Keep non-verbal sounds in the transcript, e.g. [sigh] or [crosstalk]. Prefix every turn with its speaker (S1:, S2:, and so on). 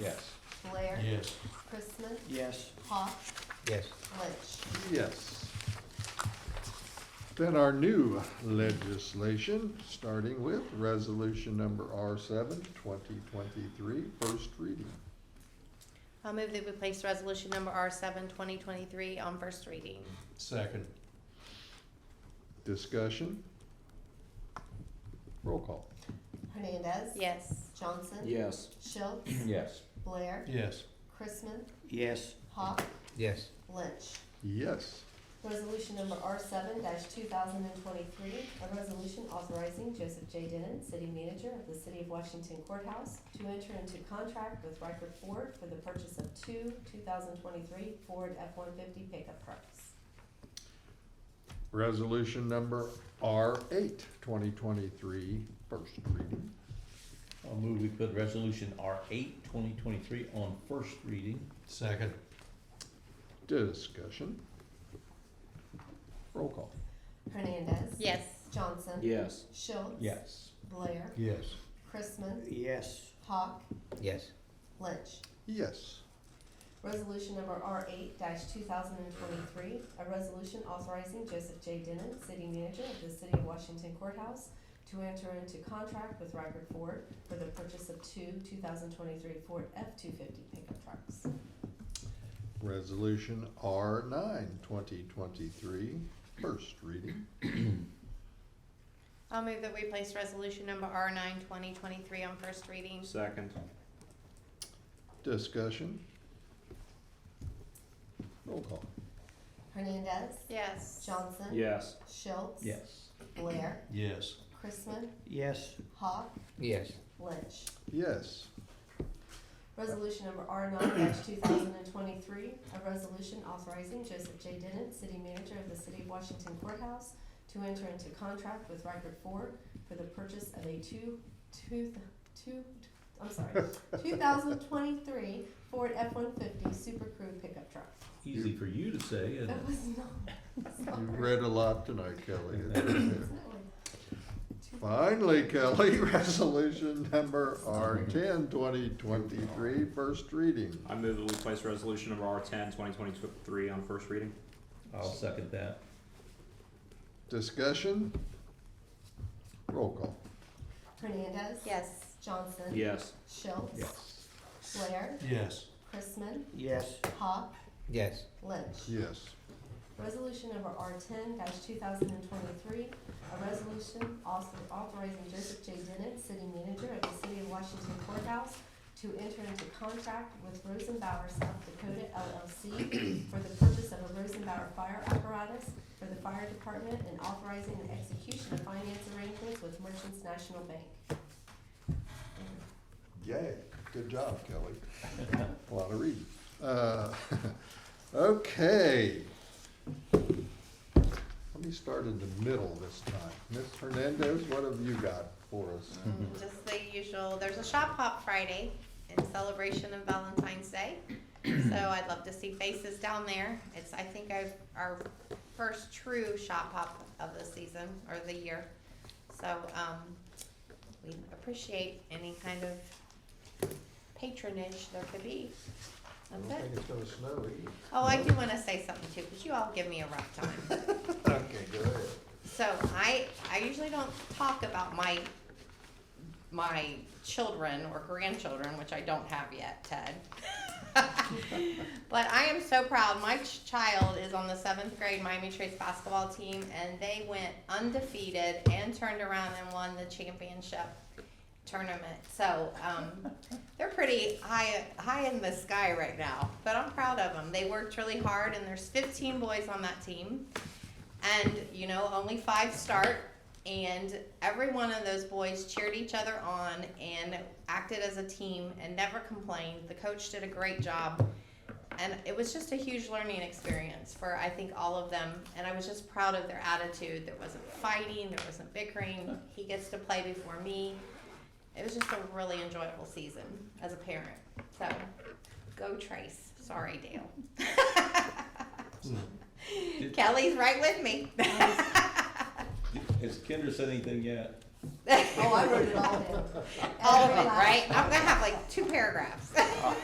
S1: Ware?
S2: Yes.
S1: Chris Smith?
S3: Yes.
S1: Hawk?
S4: Yes.
S1: Lynch?
S5: Yes. Then our new legislation, starting with resolution number R 7 2023, first reading.
S6: I'll move that we place resolution number R seven, twenty twenty-three on first reading.
S2: Second.
S5: Discussion? Roll call.
S1: Hernandez?
S6: Yes.
S1: Johnson?
S3: Yes.
S1: Schultz?
S4: Yes.
S1: Blair?
S2: Yes.
S1: Chris Smith?
S3: Yes.
S1: Hawk?
S4: Yes.
S1: Lynch?
S5: Yes.
S1: Resolution number R seven two thousand and twenty-three, a resolution authorizing Joseph J. Denon, city manager of the city of Washington courthouse, to enter into contract with Riker Ford for the purchase of two two thousand twenty-three Ford F-150 pickup trucks.
S5: Resolution number R 8 2023, first reading.
S4: I'll move we put resolution R eight, twenty twenty-three on first reading.
S2: Second.
S5: Discussion? Roll call.
S1: Hernandez.
S6: Yes.
S1: Johnson.
S3: Yes.
S1: Schultz.
S4: Yes.
S1: Blair.
S2: Yes.
S1: Chrisman.
S3: Yes.
S1: Hawk.
S4: Yes.
S1: Lynch.
S5: Yes.
S1: Resolution number R eight two thousand and twenty-three, a resolution authorizing Joseph J. Denon, city manager of the city of Washington courthouse, to enter into contract with Riker Ford for the purchase of two two thousand twenty-three Ford F-two-fifty pickup trucks.
S5: Resolution R 9 2023, first reading.
S6: I'll move that we place resolution number R nine, twenty twenty-three on first reading.
S3: Second.
S5: Discussion? Roll call.
S1: Hernandez.
S6: Yes.
S1: Johnson.
S3: Yes.
S1: Schultz.
S4: Yes.
S1: Blair.
S2: Yes.
S1: Chrisman.
S3: Yes.
S1: Hawk.
S4: Yes.
S1: Lynch.
S5: Yes.
S1: Resolution number R nine two thousand and twenty-three, a resolution authorizing Joseph J. Denon, city manager of the city of Washington courthouse, to enter into contract with Riker Ford for the purchase of a two, two, two, I'm sorry, two thousand twenty-three Ford F-150 Super Crew pickup truck.
S4: Easy for you to say, and
S1: That was not,
S5: [laughs] You
S1: sorry.
S5: read a lot tonight, Kelly. [laughs]
S1: It's not like two-
S5: Finally, Kelly, [laughs] resolution number R 10 2023, first reading.
S7: I move that we place resolution number R ten, twenty twenty-three on first reading.
S4: I'll second that.
S5: Discussion? Roll call.
S1: Hernandez.
S6: Yes.
S1: Johnson.
S3: Yes.
S1: Schultz.
S5: Yes.
S1: Blair.
S2: Yes.
S1: Chrisman.
S3: Yes.
S1: Hawk.
S4: Yes.
S1: Lynch.
S5: Yes.
S1: Resolution number R ten two thousand and twenty-three, a resolution also authorizing Joseph J. Dennett, city manager of the city of Washington courthouse, to enter into contract with Rosenbauer South Dakota LLC for the purchase of a Rosenbauer fire apparatus for the fire department and authorizing the execution of finance arrangements with Merchants National Bank.
S5: Yay, good job, Kelly. A lot of reading. Uh, [laughs] Okay. Let me start in the middle this time. Ms. Hernandez, what have you got for us?
S6: Mm-hmm. Just the usual, there's a shop hop Friday in celebration of Valentine's Day. So I'd love to see faces down there. It's, I think, our, our first true shop hop of the season or the year. So, um, we appreciate any kind of patronage there could be.
S5: I don't
S6: That's
S5: think
S6: it.
S5: it's gonna snow either.
S6: Oh, I do wanna say something too, cause you all give me a rough time.
S5: [laughs] Okay, go ahead.
S6: So I I usually don't talk about my my children or grandchildren, which I don't have yet, Ted. [laughs] but I am so proud. My ch- child is on the seventh grade Miami Trace basketball team, and they went undefeated and turned around and won the championship tournament. So um, they're pretty high high in the sky right now, but I'm proud of them. They worked really hard, and there's 15 boys on that team and you know only five start and every one of those boys cheered each other on and acted as a team and never complained the coach did a great job and it was just a huge learning experience for i think all of them and i was just proud of their attitude there wasn't fighting there
S1: [laughs]
S6: wasn't bickering he gets to play before me it was just a really enjoyable season as a parent so go trace sorry dale Kelly's right with me.
S4: Has Kendra said anything yet?
S1: [laughs] Oh, I wrote it all down.
S6: All of it, right? I'm gonna have like two paragraphs.